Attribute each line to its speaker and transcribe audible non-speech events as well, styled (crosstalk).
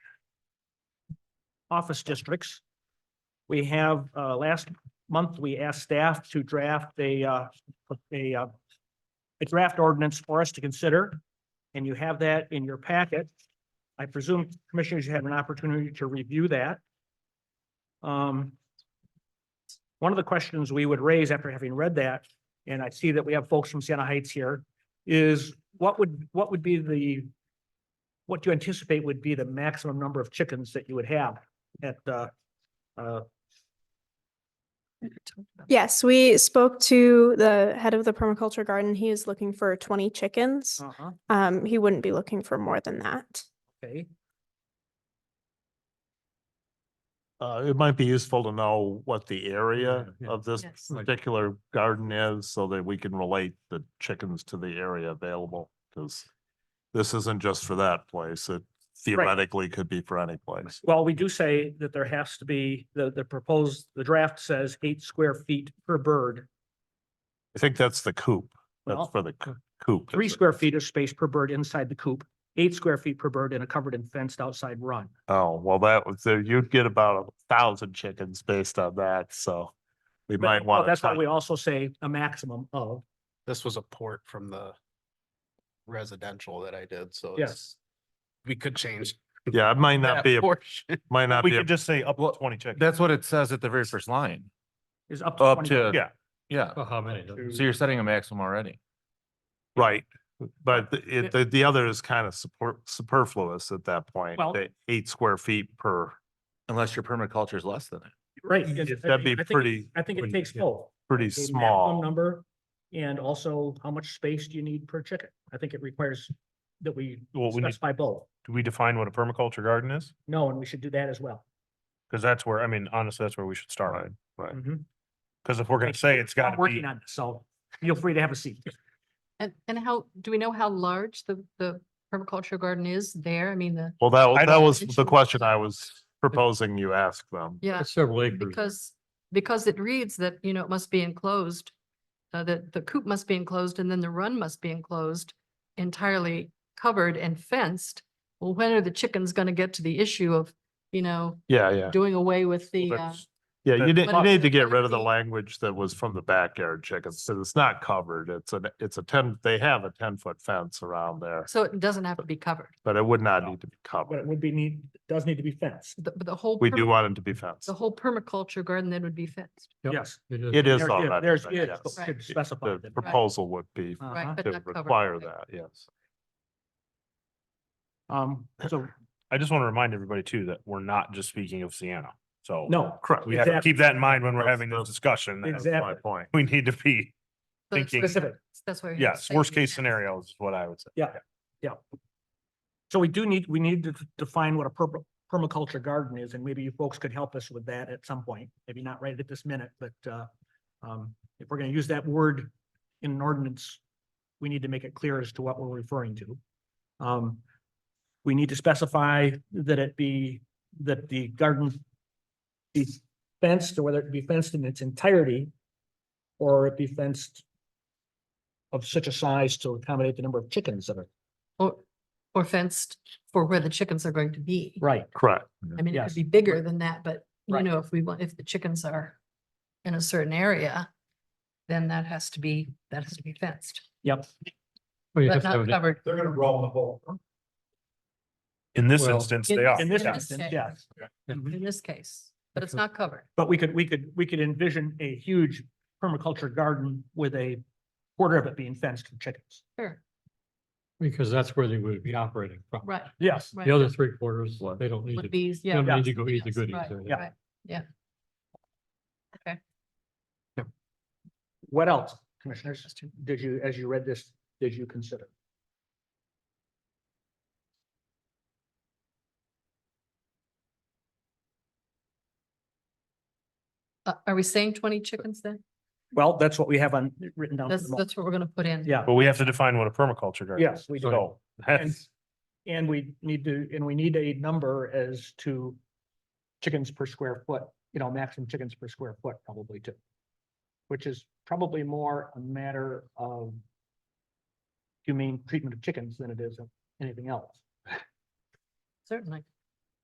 Speaker 1: office districts. We have, uh, last month, we asked staff to draft a, uh, a, uh, a draft ordinance for us to consider, and you have that in your packet. I presume commissioners you had an opportunity to review that. Um, one of the questions we would raise after having read that, and I see that we have folks from Siena Heights here, is what would, what would be the, what do you anticipate would be the maximum number of chickens that you would have at, uh, uh,
Speaker 2: Yes, we spoke to the head of the permaculture garden. He is looking for twenty chickens.
Speaker 1: uh-huh,
Speaker 2: Um, he wouldn't be looking for more than that.
Speaker 1: okay,
Speaker 3: Uh, it might be useful to know what the area
Speaker 4: Yeah.
Speaker 3: of this
Speaker 5: Yes.
Speaker 4: Like-
Speaker 3: particular garden is so that we can relate the chickens to the area available. Cause this isn't just for that place. It theoretically could be for any place.
Speaker 1: Well, we do say that there has to be, the, the proposed, the draft says eight square feet per bird.
Speaker 3: I think that's the coop. That's
Speaker 1: Well,
Speaker 3: for the coo- coop.
Speaker 1: Three square feet of space per bird inside the coop, eight square feet per bird in a covered and fenced outside run.
Speaker 3: Oh, well, that was, so you'd get about a thousand chickens based on that. So we
Speaker 1: But-
Speaker 3: might
Speaker 1: well,
Speaker 3: want.
Speaker 1: That's why we also say a maximum of,
Speaker 4: This was a port from the residential that I did, so
Speaker 1: Yeah.
Speaker 4: it's, we could change.
Speaker 3: Yeah, it might
Speaker 4: that
Speaker 3: not be, a (laughs)
Speaker 4: portion.
Speaker 3: might not
Speaker 6: We
Speaker 3: be, a-
Speaker 6: could just say up to twenty chickens.
Speaker 7: That's what it says at the very first line.
Speaker 1: is up to.
Speaker 7: Up
Speaker 1: 20
Speaker 7: to.
Speaker 3: Yeah.
Speaker 7: Yeah.
Speaker 4: Well, how many?
Speaker 7: So you're setting a maximum already.
Speaker 3: right. But the- it, the, the other is kind of support superfluous at that point.
Speaker 1: Well-
Speaker 3: the Eight square feet per.
Speaker 7: Unless your permaculture is less than that.
Speaker 1: Right. because I
Speaker 3: That'd be
Speaker 1: think- I think-
Speaker 3: pretty,
Speaker 1: I think it
Speaker 4: pretty-
Speaker 1: takes
Speaker 4: yeah.
Speaker 1: both.
Speaker 3: pretty
Speaker 1: a maximum
Speaker 3: small.
Speaker 1: Number, and also how much space do you need per chicken? I think it requires that we
Speaker 6: Well, we need,
Speaker 1: specify both.
Speaker 6: do we define what a permaculture garden is?
Speaker 1: No, and we should do that as well.
Speaker 6: Cause that's where, I mean, honestly, that's where we should start.
Speaker 3: Right.
Speaker 6: Mm-hmm.
Speaker 1: Mhm.
Speaker 6: Cause if we're gonna
Speaker 1: Thank
Speaker 6: say it's
Speaker 1: I'm
Speaker 6: gotta be,
Speaker 1: Working on this, so feel free to have a seat.
Speaker 5: And, and how, do we know how large the, the permaculture garden is there? I mean, the,
Speaker 3: Well, that,
Speaker 6: I
Speaker 3: wa- that
Speaker 6: don't-
Speaker 3: was the question I was proposing you ask them.
Speaker 5: yeah,
Speaker 4: Several
Speaker 5: because, because it reads that, you know, it must be enclosed. Uh, that the coop must be enclosed and then the run must be enclosed, entirely covered and fenced. Well, when are the chickens gonna get to the issue of, you know,
Speaker 3: Yeah, yeah.
Speaker 5: doing away with the, uh,
Speaker 6: that's-
Speaker 3: Yeah, you
Speaker 6: But-
Speaker 3: didn't, you
Speaker 5: Well-
Speaker 3: need to get rid of the language that was from the backyard chickens, because it's not covered. It's a, it's a ten, they have a ten foot fence around there,
Speaker 5: so it doesn't have to be covered.
Speaker 3: but it would not
Speaker 6: No.
Speaker 3: need to be
Speaker 1: But it
Speaker 3: covered.
Speaker 1: would be need, does need to be fenced.
Speaker 5: The, but the whole.
Speaker 3: We
Speaker 5: perma-
Speaker 3: do want it to be fenced.
Speaker 5: The whole permaculture garden then would be fenced,
Speaker 1: Yes.
Speaker 3: It is
Speaker 1: There- there-
Speaker 3: already.
Speaker 1: There's,
Speaker 3: but
Speaker 1: it,
Speaker 3: yes.
Speaker 1: but we
Speaker 5: Right.
Speaker 1: should specify
Speaker 3: The
Speaker 1: that.
Speaker 3: proposal would be
Speaker 1: Uh-huh.
Speaker 5: right? But
Speaker 3: to
Speaker 5: not covered.
Speaker 3: require
Speaker 5: Okay.
Speaker 3: that, yes.
Speaker 1: Um, so,
Speaker 6: I just wanna remind everybody too, that we're not just speaking of Sienna. So.
Speaker 1: no,
Speaker 3: Correct.
Speaker 6: We have to
Speaker 1: exactly.
Speaker 6: keep that in mind when we're
Speaker 3: That's-
Speaker 6: having this
Speaker 3: that's-
Speaker 6: discussion. that
Speaker 3: That's my
Speaker 1: Exactly.
Speaker 3: point.
Speaker 6: We need to be,
Speaker 5: So it's-
Speaker 6: Thinking-
Speaker 1: specific.
Speaker 5: That's why. we have to
Speaker 6: yes,
Speaker 5: say
Speaker 6: worst case
Speaker 5: fenced.
Speaker 6: scenarios is what I would say.
Speaker 1: So we do need, we need to define what a perp- permaculture garden is, and maybe you folks could help us with that at some point. Maybe not right at this minute, but uh, um, if we're gonna use that word in an ordinance, we need to make it clear as to what we're referring to. Um, we need to specify that it be, that the garden be fenced, or whether it be fenced in its entirety, or it be fenced of such a size to accommodate the number of chickens that are.
Speaker 5: Or, or fenced for where the chickens are going to be.
Speaker 1: Right.
Speaker 3: Correct.
Speaker 5: I mean, it
Speaker 1: Yes.
Speaker 5: could be bigger than that, but you
Speaker 1: Right.
Speaker 5: know, if we want, if the chickens are in a certain area, then that has to be, that has to be fenced,
Speaker 1: Yep.
Speaker 5: but not covered.
Speaker 8: e-,
Speaker 4: They're gonna roll the whole.
Speaker 6: In this
Speaker 4: Well-
Speaker 6: instance,
Speaker 5: In
Speaker 6: they are.
Speaker 1: In this
Speaker 6: yeah.
Speaker 1: instance,
Speaker 5: Okay.
Speaker 1: yes,
Speaker 8: mm-hmm.
Speaker 5: In this case, but it's not covered.
Speaker 1: but we could, we could, we could envision a huge permaculture garden with a quarter of it being fenced for chickens.
Speaker 5: Sure,
Speaker 8: Because that's where they would be operating from.
Speaker 5: right.
Speaker 1: Yes.
Speaker 5: right.
Speaker 8: The other three quarters, they don't need
Speaker 5: Would
Speaker 8: to,
Speaker 5: be,
Speaker 8: they
Speaker 5: yeah.
Speaker 8: don't
Speaker 1: yeah,
Speaker 8: need to go eat the
Speaker 5: yes,
Speaker 8: goodies.
Speaker 5: right,
Speaker 8: there.
Speaker 1: Yeah.
Speaker 5: right, Yeah. Okay.
Speaker 1: What else, commissioners, did you, as you read this, did you consider?
Speaker 5: Uh, are we saying twenty chickens then?
Speaker 1: Well, that's what we have on, written down. for the
Speaker 5: That's,
Speaker 1: moment.
Speaker 5: that's what we're gonna put in.
Speaker 1: Yeah,
Speaker 6: But we have to define what a permaculture garden is.
Speaker 1: yes, we do.
Speaker 6: So that's,
Speaker 1: And we need to, and we need a number as to chickens per square foot, you know, maximum chickens per square foot probably too. Which is probably more a matter of humane treatment of chickens than it is of anything else.
Speaker 5: Certainly.